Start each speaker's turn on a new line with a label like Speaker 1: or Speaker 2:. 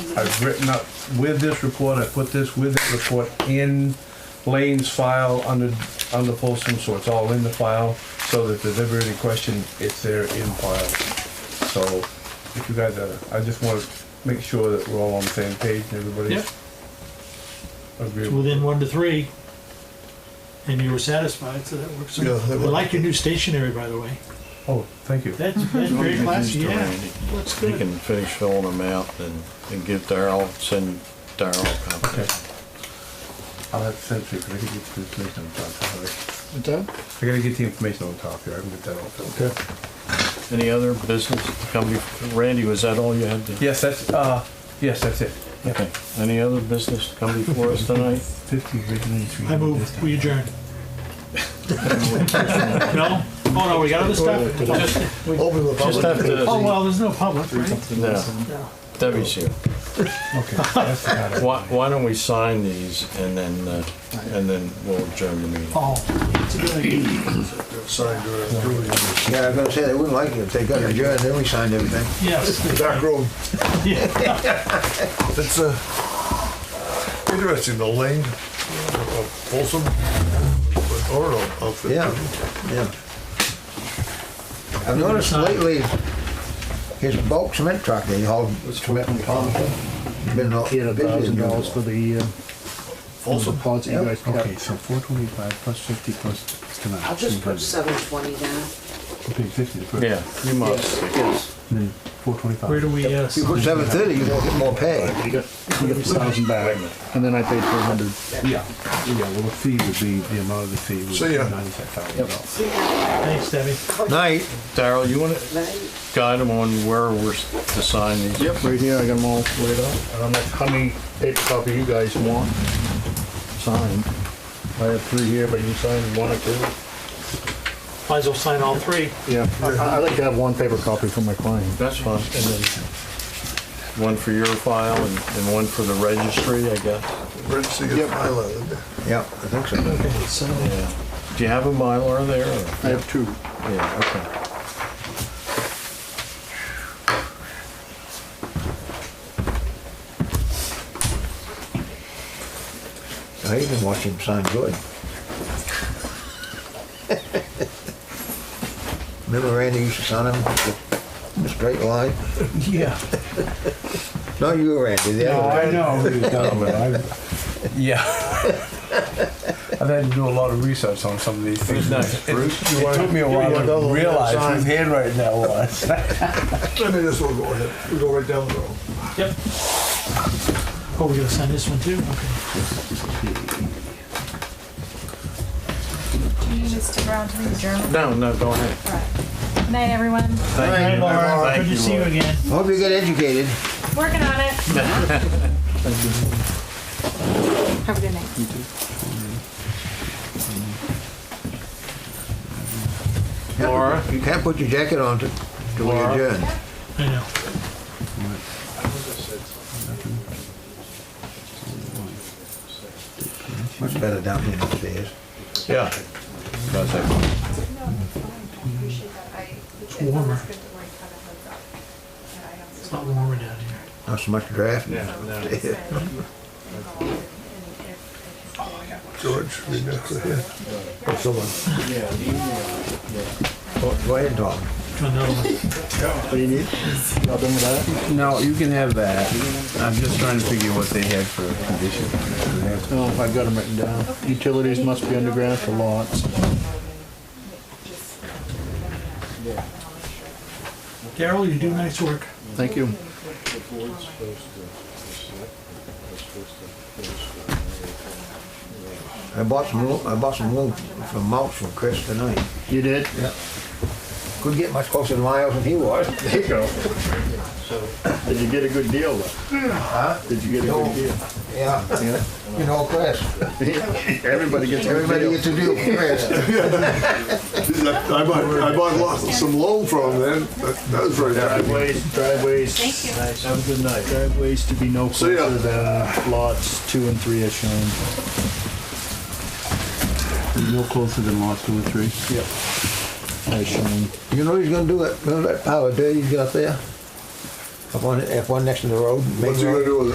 Speaker 1: I've written up with this report, I put this with that report in Lane's file under, under Folsom, so it's all in the file, so that if there's ever any question, it's there in file. So, if you guys, are- I just wanna make sure that we're all on the same page and everybody's
Speaker 2: Yep. It's
Speaker 1: agreeable.
Speaker 2: within one to three. And you were satisfied, so that works.
Speaker 3: Yeah, that
Speaker 2: I
Speaker 3: worked.
Speaker 2: like your new stationery, by the way.
Speaker 1: Oh, thank you.
Speaker 2: That's, that's very classy, yeah. Looks
Speaker 4: He
Speaker 2: good.
Speaker 4: can finish filling them out and, and give Darrell, send Darrell a copy.
Speaker 1: Okay. I'll have to send it to you, 'cause I gotta get the information on top of it.
Speaker 4: What's that?
Speaker 1: I gotta get the information on top here, I can get that all filled out.
Speaker 4: Any other business to come before, Randy, was that all you had to?
Speaker 1: Yes, that's, uh, yes, that's it.
Speaker 4: Okay. Any other business to come before us tonight?
Speaker 1: Fifty originally.
Speaker 2: I move, we adjourn. No? Oh, no, we got other stuff? Just- we-
Speaker 3: Open the
Speaker 4: Just have
Speaker 3: public.
Speaker 2: Oh,
Speaker 4: to,
Speaker 2: well, there's no public, right?
Speaker 4: no,
Speaker 2: No.
Speaker 4: Debbie's here.
Speaker 1: Okay, that's not it.
Speaker 4: Why, why don't we sign these and then, uh, and then we'll adjourn the meeting?
Speaker 2: Oh, it's a good idea.
Speaker 3: Signed, uh, Julie.
Speaker 5: Yeah, I was gonna say, they wouldn't like it if they got adjourned, then we signed everything.
Speaker 2: Yes.
Speaker 3: Back room.
Speaker 2: Yeah.
Speaker 3: It's uh, interesting, the lane of Folsom, or of.
Speaker 5: Yeah, yeah. I've noticed lately, his bulk cement truck, they haul cement from Thompson, been all
Speaker 6: He had a
Speaker 5: busy.
Speaker 6: thousand
Speaker 5: as
Speaker 6: dollars
Speaker 5: usual.
Speaker 6: for the, uh,
Speaker 3: Folsom.
Speaker 6: pods that you guys kept.
Speaker 1: Okay, so four twenty-five plus fifty plus, it's gonna.
Speaker 7: I'll just put seven twenty down.
Speaker 1: Okay, fifty to put.
Speaker 4: Yeah, you must.
Speaker 1: Then four twenty-five.
Speaker 2: Where do we, uh,
Speaker 5: You put seven thirty, you don't get more pay.
Speaker 6: You got, you got a thousand back, and then I paid four hundred.
Speaker 1: Yeah, yeah, well, the fee would be, the amount of the fee would
Speaker 3: See
Speaker 1: be
Speaker 3: ya.
Speaker 1: ninety-five thousand dollars.
Speaker 2: thanks, Debbie.
Speaker 5: Night.
Speaker 4: Darrell, you wanna
Speaker 7: Right?
Speaker 4: guide them on where we're s- to sign these?
Speaker 6: Yep, right here, I got them all laid out. And I'm like, how many paper copy you guys want signed? I have three here, but you signed one or two?
Speaker 2: Might as well sign all three.
Speaker 6: Yeah, I, I like to have one paper copy for my client.
Speaker 4: That's fine. And then one for your file and, and one for the registry, I guess.
Speaker 3: Red Sea is my land.
Speaker 5: Yeah, I think so.
Speaker 4: Yeah. Do you have a Mylar there? or-
Speaker 6: I have two.
Speaker 4: Yeah, okay.
Speaker 5: I even watched him sign good. Remember Randy used to sign him with a straight line?
Speaker 1: Yeah.
Speaker 5: No, you were Randy, the
Speaker 1: No,
Speaker 5: other
Speaker 1: I
Speaker 5: one.
Speaker 1: know, who you're talking about. I- yeah. I've had to do a lot of research on some of these things.
Speaker 4: next,
Speaker 1: It- It took me a while
Speaker 3: wanna go
Speaker 1: to realize
Speaker 3: outside?
Speaker 1: whose handwriting that was.
Speaker 3: I mean, this will go ahead, we go right down the road.
Speaker 2: Yep. Oh, we gotta sign this one too? Okay.
Speaker 8: Do you need Mr. Brown to leave German?
Speaker 4: No, no, go ahead.
Speaker 8: Right. Night, everyone.
Speaker 4: Thank you.
Speaker 2: Laura,
Speaker 4: Thank
Speaker 2: good to see you
Speaker 4: Laura.
Speaker 2: again.
Speaker 5: Hope you get educated.
Speaker 8: Working on it. Have a good night.
Speaker 4: Laura?
Speaker 5: You can't put your jacket on to, to
Speaker 4: Laura?
Speaker 5: adjourn.
Speaker 2: I know.
Speaker 5: Much better down here upstairs.
Speaker 4: Yeah. That's it.
Speaker 9: No, that's fine, I appreciate that, I, it's always
Speaker 2: warmer.
Speaker 9: good that we're kind of hooked up. And I also-
Speaker 2: It's a lot warmer down here.
Speaker 5: Not so much draft.
Speaker 9: So, and go on and- and if- if-
Speaker 8: Oh,
Speaker 3: George, we got to here.
Speaker 5: Or someone. Go uh, go ahead and talk.
Speaker 2: Do another one.
Speaker 6: What do you need? Y'all done with that?
Speaker 1: No, you can have that. I'm just trying to figure what they had for a condition.
Speaker 6: No, I've got them written down. Utilities must be underground for lots.
Speaker 2: Daryl, you do nice work.
Speaker 6: Thank you.
Speaker 5: I bought some, lo- I bought some loom from mulch from Chris tonight.
Speaker 6: You did?
Speaker 5: Couldn't get much closer to my house than he was.
Speaker 6: There you go. Did you get a good deal though? Did you get a good deal?
Speaker 5: Yeah, you know, Chris.
Speaker 6: Everybody gets a good
Speaker 5: Everybody
Speaker 6: deal.
Speaker 5: gets a deal from Chris.
Speaker 3: I bought, I bought lots of some loan from them, that, that was very happy.
Speaker 6: Driveways, driveways.
Speaker 8: Thank you.
Speaker 6: Nice. Have a good night. Driveways to be no
Speaker 3: See ya.
Speaker 6: closer than lots two and three as shown.
Speaker 1: No closer than lot two or three.
Speaker 6: As shown.
Speaker 5: You know he's gonna do it, gonna let power do, he's got there.
Speaker 10: Up on, up one next to the road. main
Speaker 5: What's he
Speaker 10: road.
Speaker 5: gonna do with it?